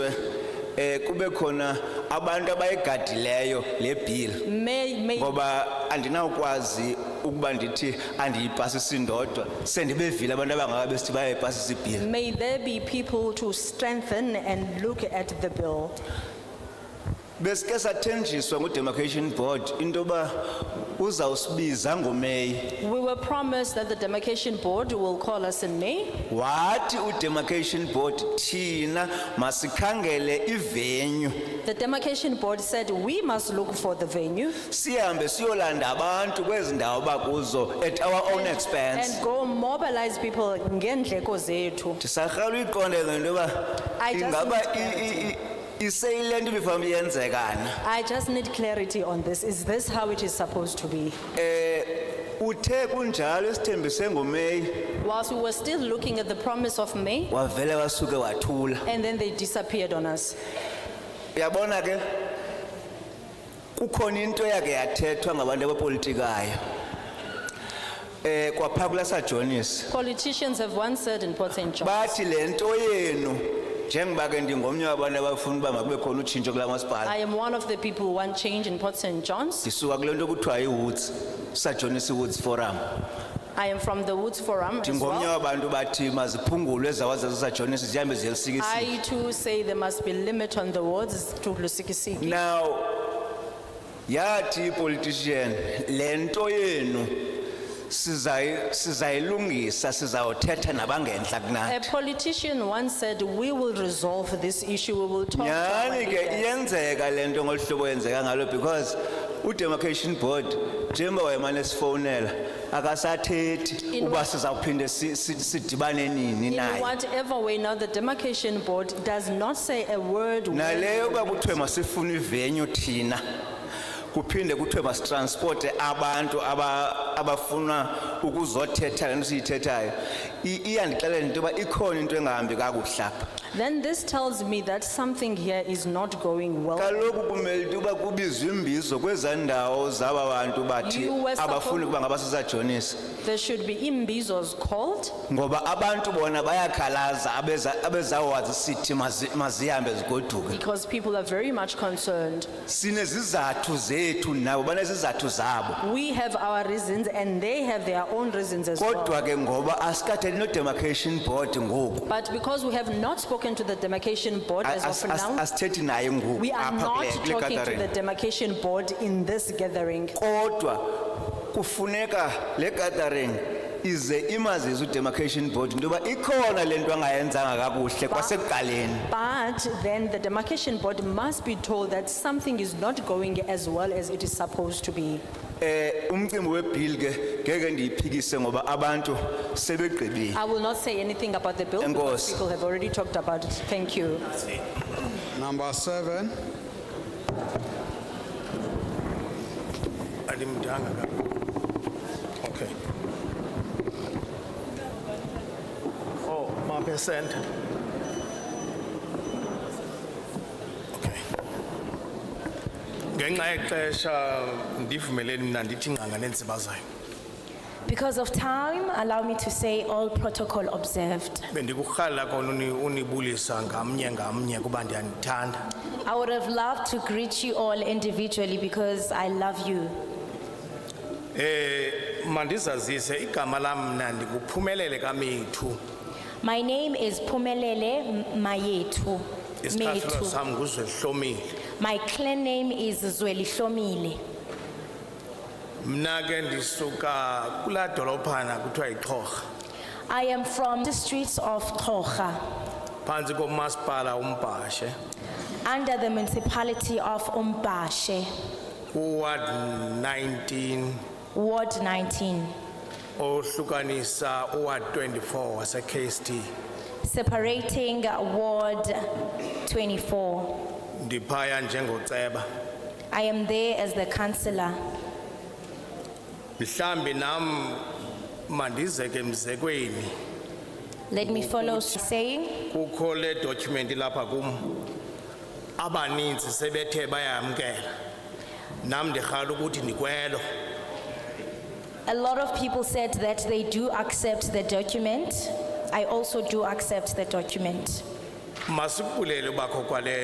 eh kube khona abantu abayigadileyo le bill May, may, ngoba andinawukwazi ukuba ndithi andiyipasisi ndodwa sendibevile abantu abangaka besithi bayayipasisa ibhili may there be people to strengthen and look at the bill. besike sathenjiswa ngudemarcation board into yoba uzawusibiza ngomeyi We were promised that the demarcation board will call us in May. wathi udemarcation board thina masikhangele ivenyu The demarcation board said we must look for the venue sihambe siyolanda abantu kwezi ndawo bakuzo at our own expense and go mobilize people ngendleko zethu. ndisarhala uyiqonde ke into yoba I just ingaba need i- i- i- iseyile nto ibifanuba iyenzekana I just need clarity on this. Is this how it is supposed to be? uthe kunjalo esithembise ngomeyi Whilst we were still looking at the promise of May, wavele wasuke wathula and then they disappeared on us. uyabona ke kukhona into eyake yathethwa ngabantu abapolitikayo um kwaphaa kulasajonisi Politicians have once said in Port St. John, bathi le nto yenu njengoba ke ndingomnye wabantu abafuna uba makube khona utshintsho kula I masipala am one of the people who want change in Port St. John's. ndisuka kule nto kuthiwa iwoods sajonisi woods forum I am from the Woods Forum as ndingomnye well. wabantu bathi maziphungulwe ezawazazo sajonisi zihambe ziyelisikisile I too say there must be limit on the wards to Lusikisiki. Now, yathi politician, lento yenu, sizay, sizayilungisa, sizawuthetha nabangentla A kunathi. politician once said, "We will resolve this issue, we will talk." to our Nyani ke leaders." iyenzeka lento ngolu hlobo yenzeka ngalo because udemarcation board njengoba wayemane esifonela akasathethi In uba what- sizawuphinde si- si- sidibane nini In naye. whatever way, now the demarcation board does not say a word. when- Naleyo uba kuthiwe masifune ivenue thina kuphinde kuthiwe masitransporte abantu aba- abafuna ukuzothetha le nto siyithethayo i- iyandixelela into yoba ikhona into engahambi kakuhle apha Then this tells me that something here is not going well. kaloku kumele into yoba kubizwe imbizo kwezaa ndawo zaba bantu bathi You were supposed- abafuni ukuba ngabasesajonisi There should be imbizos called ngoba abantu bona bayakhalaza abeza- abezawazi sithi mazi- mazihambe zigoduke because people are very much concerned. sinezizathu zethu nabo banezizathu zabo We have our reasons and they have their own reasons as well. kodwa ke ngoba asikatheli no-demarcation board ngoku But because we have not spoken to the demarcation board as As- of as- now, asithethi naye ngoku we are apha not kule- kule talking to the gathering demarcation board in this gathering. kodwa kufuneka le gathering ize imazise udemarcation board into yoba ikhona le nto angayenzanga kakuhle kwasekuqaleni But then the demarcation board must be told that something is not going as well as it is supposed to be. um umcimbi webhili ke ngeke ndiyiphikise ngoba abantu sebegqibile I will not say anything about the bill Enkosi. because people have already talked about it. Thank you. Number seven, andimdanga kakhulu okay oh mapesente okay ngenxa yexesha ndivumeleni mna ndithi ngqanga neentsiba zayo Because of time, allow me to say all protocol observed. bendikurhalela kona uni- unibulisa ngamnye ngamnye kuba ndiyanithanda I would have loved to greet you all individually because I love you. eh mandizazise igama lam mna ndikuphumelele kamethu My name is Pumelele Mayetu. isicathulo sam nguzwehlomile My clan name is Zweli Shomile. mna ke ndisuka kulaa dolopana kuthiwa yiqhorha I am from the streets of Tocha, phantsi komasipala umbhashe under the municipality of Umbashe, kuward 19 Ward 19, ohlukanisa uward 24 wase-kst separating Ward 24. ndiphaya njengoceba I am there as the councillor. mhlawumbi nam mandize ke mzekweni Let me follow saying, kukho le document lapha kum abaninzi sebethe bayamkela nam ndirhala ukuthi ndikwelo A lot of people said that they do accept the document. I also do accept the document. masikubulele ubakho kwale